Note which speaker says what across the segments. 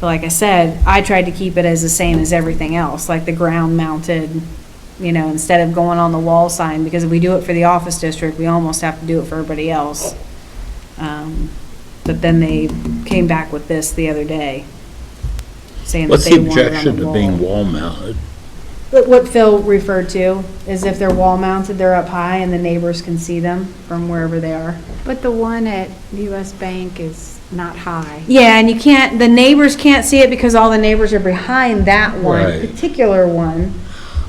Speaker 1: But like I said, I tried to keep it as the same as everything else, like the ground mounted, you know, instead of going on the wall sign, because if we do it for the office district, we almost have to do it for everybody else. Um, But then they came back with this the other day, saying that
Speaker 2: What's
Speaker 1: they
Speaker 2: the
Speaker 1: wanted it on
Speaker 2: objection
Speaker 1: the
Speaker 2: to
Speaker 1: wall.
Speaker 2: being wall mounted?
Speaker 1: But what Phil referred to is if they're wall mounted, they're up high and the neighbors can see them from wherever they are.
Speaker 3: But the one at US Bank is not high.
Speaker 1: Yeah, and you can't, the neighbors can't see it because all the neighbors are behind that one,
Speaker 2: Right.
Speaker 1: particular one.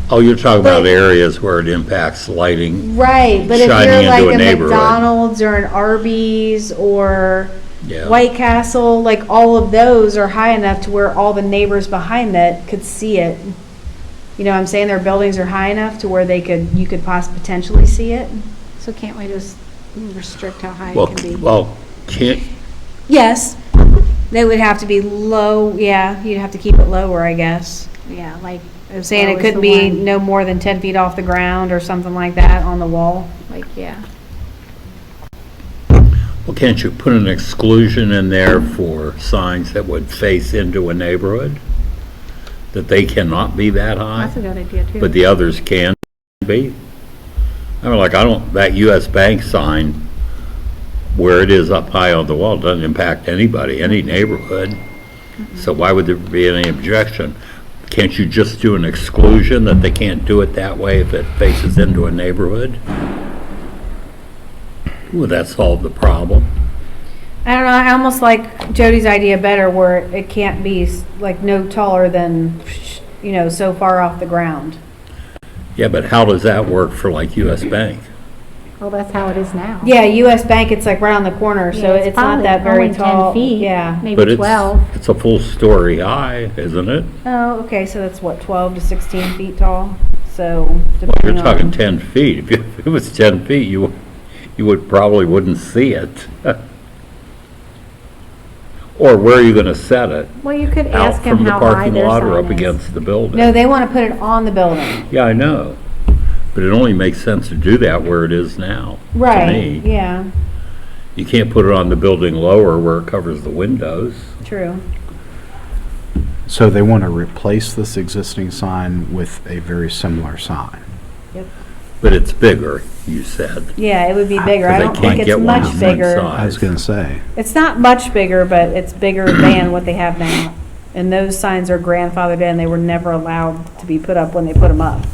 Speaker 2: Oh, you're talking about
Speaker 1: But-
Speaker 2: areas where it impacts lighting,
Speaker 1: Right, but if
Speaker 2: Shining
Speaker 1: you're
Speaker 2: into
Speaker 1: like
Speaker 2: a
Speaker 1: a
Speaker 2: neighborhood.
Speaker 1: McDonald's or an Arby's or
Speaker 2: yeah.
Speaker 1: White Castle, like all of those are high enough to where all the neighbors behind that could see it. You know, what I'm saying their buildings are high enough to where they could, you could poss, potentially see it.
Speaker 3: So can't we just restrict how high
Speaker 2: Well,
Speaker 3: it
Speaker 2: c-
Speaker 3: can be?
Speaker 2: well, can't,
Speaker 1: Yes, they would have to be low, yeah, you'd have to keep it lower, I guess.
Speaker 3: Yeah, like. as
Speaker 1: Saying
Speaker 3: low
Speaker 1: it
Speaker 3: as
Speaker 1: couldn't
Speaker 3: the
Speaker 1: be
Speaker 3: one-
Speaker 1: no more than ten feet off the ground or something like that on the wall.
Speaker 3: Like, yeah.
Speaker 2: well, can't you put an exclusion in there for signs that would face into a neighborhood? That they cannot be that high,
Speaker 3: That's a good idea too.
Speaker 2: but the others can be? I mean, like, I don't, that US Bank sign, where it is up high on the wall, doesn't impact anybody, any neighborhood. So why would there be any objection? Can't you just do an exclusion that they can't do it that way if it faces into a neighborhood? Would that solve the problem?
Speaker 1: I don't know, I almost like Jody's idea better where it can't be s- like no taller than, you know, so far off the ground.
Speaker 2: Yeah, but how does that work for like US Bank?
Speaker 3: Well, that's how it is now.
Speaker 1: Yeah, US Bank, it's like right on the corner, so it's not
Speaker 3: probably
Speaker 1: that very
Speaker 3: only 10
Speaker 1: tall.
Speaker 3: feet,
Speaker 1: Yeah.
Speaker 2: But
Speaker 3: Maybe
Speaker 2: it's
Speaker 3: 12.
Speaker 2: It's a full story high, isn't it?
Speaker 1: Oh, okay, so that's what, twelve to sixteen feet tall, so
Speaker 2: Well,
Speaker 1: depending on.
Speaker 2: you're talking 10 feet. If you- if it was 10 feet, you, you would, probably wouldn't see it. Or where are you going to set it?
Speaker 3: Well, you could ask
Speaker 2: Out
Speaker 3: him
Speaker 2: from the
Speaker 3: how high
Speaker 2: parking
Speaker 3: their
Speaker 2: lot or up
Speaker 3: sign is.
Speaker 2: against the building?
Speaker 1: No, they want to put it on the building.
Speaker 2: Yeah, I know, but it only makes sense to do that where it is now. to
Speaker 1: Right,
Speaker 2: me.
Speaker 1: yeah,
Speaker 2: You can't put it on the building lower where it covers the windows.
Speaker 1: true.
Speaker 4: So they want to replace this existing sign with a very similar sign.
Speaker 2: But it's bigger, you said.
Speaker 1: Yeah, it would be bigger. I
Speaker 2: Because Ah, they
Speaker 1: don't think
Speaker 2: can't
Speaker 1: it's
Speaker 2: get one
Speaker 1: much
Speaker 2: on one
Speaker 1: bigger.
Speaker 2: side.
Speaker 4: I was going to say,
Speaker 1: It's not much bigger, but it's bigger than what they have now. And those signs are grandfathered in. They were never allowed to be put up when they put them up.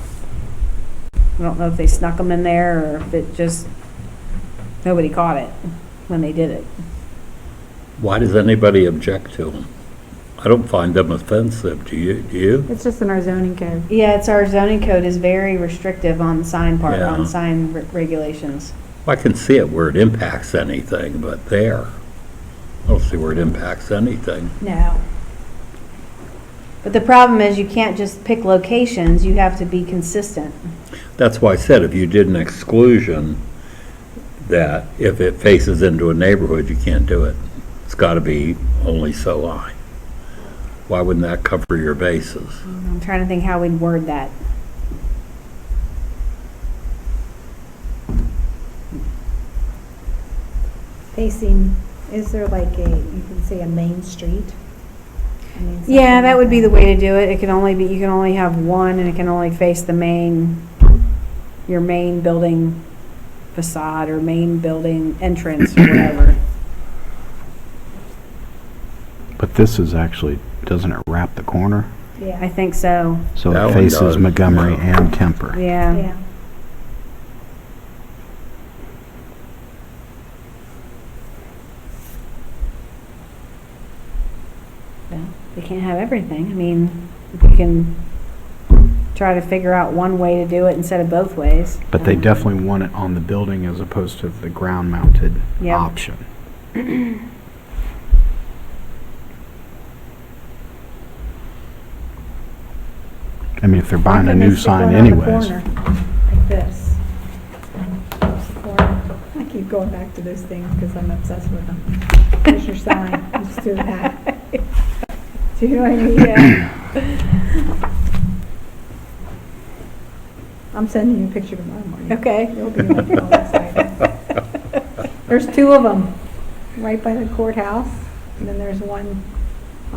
Speaker 1: I don't know if they snuck them in there or if it just, nobody caught it when they did it.
Speaker 2: Why does anybody object to them? I don't find them offensive, do you? Do you?
Speaker 3: It's just in our zoning code.
Speaker 1: Yeah, it's our zoning code is very restrictive on sign part, on
Speaker 2: Yeah.
Speaker 1: sign re- regulations.
Speaker 2: I can see it where it impacts anything, but there, I don't see where it impacts anything.
Speaker 1: No. But the problem is you can't just pick locations. You have to be consistent.
Speaker 2: That's why I said if you did an exclusion, that if it faces into a neighborhood, you can't do it. It's got to be only so high. Why wouldn't that cover your bases?
Speaker 1: I'm trying to think how we'd word that.
Speaker 5: facing, is there like a, you can say a main street? I mean, something
Speaker 1: Yeah, that
Speaker 5: like
Speaker 1: would be the way to do it. It can only be, you can only have one and it can only face the main, your main building facade or main building entrance or whatever.
Speaker 4: but this is actually, doesn't it wrap the corner?
Speaker 1: I
Speaker 5: Yeah,
Speaker 1: think so,
Speaker 4: So
Speaker 2: That
Speaker 4: it
Speaker 2: one
Speaker 4: faces
Speaker 2: does,
Speaker 4: Montgomery
Speaker 2: yeah.
Speaker 4: and Kemper.
Speaker 3: um,
Speaker 1: yeah.
Speaker 5: yeah.
Speaker 1: Well, We can't have everything. I mean, we can try to figure out one way to do it instead of both ways. Um,
Speaker 4: But they definitely want it on the building as opposed to the ground-mounted
Speaker 1: Yeah.
Speaker 4: option. I mean, if they're buying a
Speaker 5: Like
Speaker 4: new
Speaker 5: this, the
Speaker 4: sign
Speaker 5: one on the
Speaker 4: anyways.
Speaker 5: corner, Like this. Or- I keep going back to those things because I'm obsessed with them. Here's your sign, just do that. Do you know what I mean? Yeah. I'm sending you a picture tomorrow morning.
Speaker 1: Okay.
Speaker 5: You'll be like, "Oh, that's right." There's two of them, right by the courthouse, and then there's one